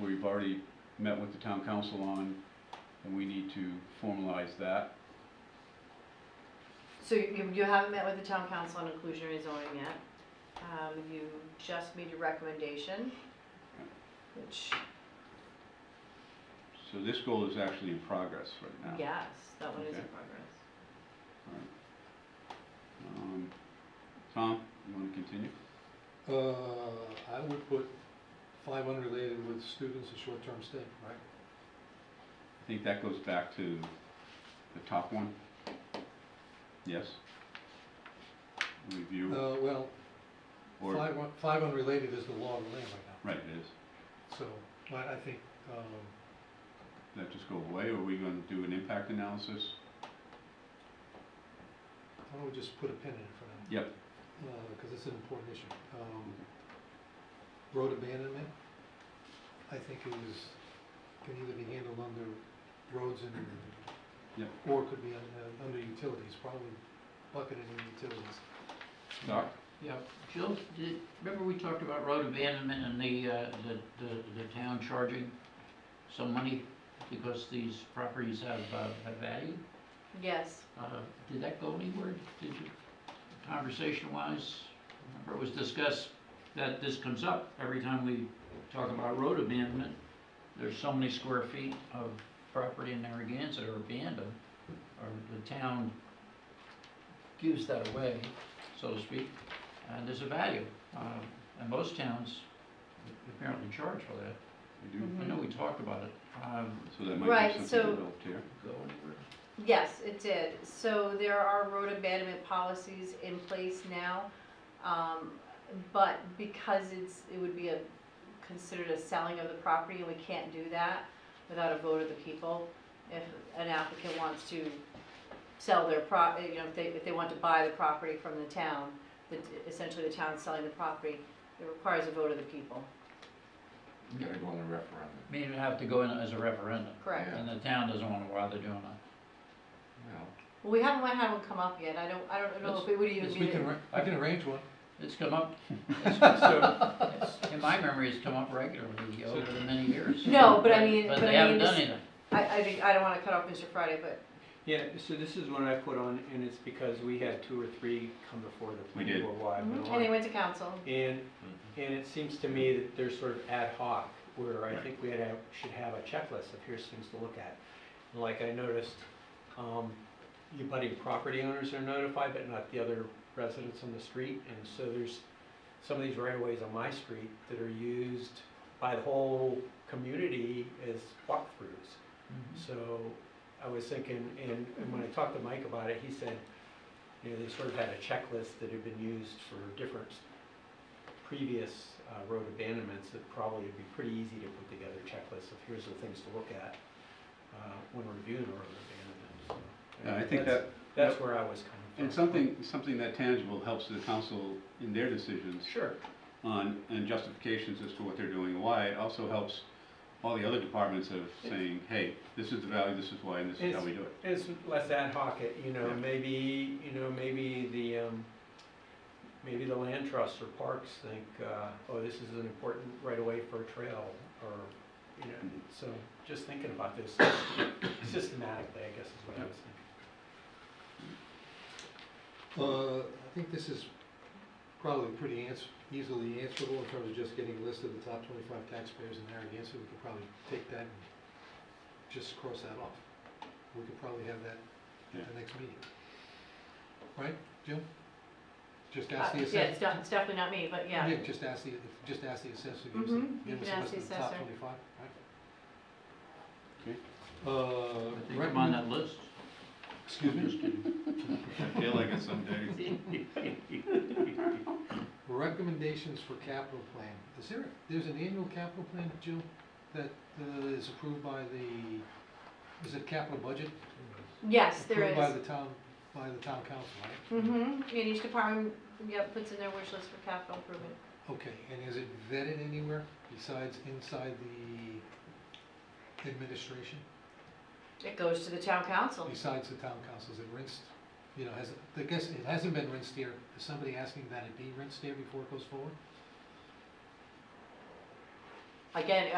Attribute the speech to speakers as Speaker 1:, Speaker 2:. Speaker 1: we've already met with the town council on, and we need to formalize that.
Speaker 2: So you, you haven't met with the town council on inclusionary zoning yet. Um, you just made your recommendation, which,
Speaker 1: So this goal is actually in progress right now.
Speaker 2: yes, that one is
Speaker 1: Oh.
Speaker 2: in
Speaker 1: Okay.
Speaker 2: progress.
Speaker 1: Um, Tom, you wanna continue?
Speaker 3: Uh, I would put five unrelated with students and short-term stay, right?
Speaker 1: I think that goes back to the top one. Yes? Review
Speaker 3: Uh, well,
Speaker 1: or,
Speaker 3: five, un- five unrelated is the law of the land right
Speaker 1: right, it is.
Speaker 3: now. So, I, I think, um,
Speaker 1: That just go away, or are we gonna do an impact analysis?
Speaker 3: why don't we just put a pin in it for now?
Speaker 1: Yep.
Speaker 3: Uh, cause it's an important issue. Um, road abandonment, I think is, can either be handled under roads and.
Speaker 1: Yep.
Speaker 3: Or could be under, under utilities, probably bucketed in utilities.
Speaker 1: Doc?
Speaker 4: Yeah, Jill, did, remember we talked about road abandonment and the, uh, the, the, the town charging some money because these properties have, uh, have value?
Speaker 2: Yes,
Speaker 4: Uh, did that go anywhere? Did you, conversation wise? Remember it was discussed that this comes up every time we talk about road abandonment. There's so many square feet of property in Narragansett are abandoned, or the town gives that away, so to speak, and there's a value. Um, and most towns apparently charge for that.
Speaker 1: You do?
Speaker 4: I know we talked about it. Um,
Speaker 1: So that might
Speaker 2: Mm-hmm. Right,
Speaker 1: be something
Speaker 2: so-
Speaker 1: developed here.
Speaker 4: go anywhere?
Speaker 2: yes, it did. So there are road abandonment policies in place now. Um, but because it's, it would be a, considered a selling of the property and we can't do that without a vote of the people. If an applicant wants to sell their prop, you know, if they, if they want to buy the property from the town, the, essentially the town's selling the property, it requires a vote of the people.
Speaker 5: You gotta go on the referendum.
Speaker 4: I mean, it'd have to go in as a referendum.
Speaker 2: Correct.
Speaker 4: And the town doesn't wanna bother doing that.
Speaker 5: Well,
Speaker 2: Well, we haven't had one come up yet. I don't, I don't know if it would even
Speaker 3: Yes,
Speaker 2: be.
Speaker 3: we can, arra- I can arrange one.
Speaker 4: It's come up, it's, it's- in my memory, it's come up regularly over the many years.
Speaker 2: No, but I mean-
Speaker 4: But
Speaker 2: but I
Speaker 4: they haven't
Speaker 2: mean,
Speaker 4: done
Speaker 2: this-
Speaker 4: anything.
Speaker 2: I, I think, I don't wanna cut off Mr. Friday, but,
Speaker 6: Yeah, so this is one I put on, and it's because we had two or three come before the
Speaker 1: We
Speaker 6: planning
Speaker 1: did.
Speaker 6: board while I've been
Speaker 2: Mhm. and they
Speaker 6: on.
Speaker 2: went to council.
Speaker 6: And, and it seems to me that they're sort of ad hoc, where I think we had a- should have a checklist of here's things to look at. Like I noticed, um, the budding property owners are notified, but not the other residents on the street. And so there's some of these right of ways on my street that are used by the whole community as walkthroughs. So I was thinking, and, and when I talked to Mike about it, he said, you know, they sort of had a checklist that had been used for different previous uh, road abandonments that probably would be pretty easy to put together checklists of here's the things to look at uh, when reviewing a road abandonment. So,
Speaker 1: Yeah, I think
Speaker 6: that's-
Speaker 1: that,
Speaker 6: That's where I was coming from.
Speaker 1: and something, something that tangible helps the council in their decisions
Speaker 6: Sure,
Speaker 1: on, and justifications as to what they're doing and why. It also helps all the other departments of saying, hey, this is the value, this is why, and this is how we do it.
Speaker 6: it's less ad hoc, it- you know,
Speaker 1: Yeah.
Speaker 6: maybe, you know, maybe the, um, maybe the land trusts or parks think, uh, oh, this is an important right away for a trail, or, you know, so just thinking about this systematically, I guess is what I was thinking.
Speaker 3: Uh, I think this is probably pretty ans- easily answerable in terms of just getting a list of the top twenty-five taxpayers in Narragansett. We could probably take that and just cross that off. We could probably have that at the next meeting. Right, Jim? Just
Speaker 2: Uh,
Speaker 3: ask the assessor.
Speaker 2: Yeah, it's not, it's definitely not me, but yeah.
Speaker 3: just ask the, just ask the assessor, give us, a-
Speaker 2: Mhm, you
Speaker 3: give us
Speaker 2: can
Speaker 3: a
Speaker 2: ask
Speaker 3: list
Speaker 2: the
Speaker 3: of the top
Speaker 2: assessor.
Speaker 3: twenty-five, right?
Speaker 1: Okay.
Speaker 3: Uh,
Speaker 4: I think I'm on that list.
Speaker 3: excuse me?
Speaker 1: I feel like it someday.
Speaker 3: Recommendations for capital plan. Is there, there's an annual capital plan, Jill, that uh, is approved by the, is it capital budget?
Speaker 2: Yes, there
Speaker 3: Approved by
Speaker 2: is.
Speaker 3: the town, by the town council, right?
Speaker 2: Mm-hmm, and each department, yep, puts in their wish list for capital improvement.
Speaker 3: Okay, and is it vetted anywhere besides inside the administration?
Speaker 2: It goes to the town council.
Speaker 3: Besides the town councils, it rinsed, you know, has, I guess it hasn't been rinsed here. Is somebody asking that it be rinsed here before it goes forward?
Speaker 2: Again,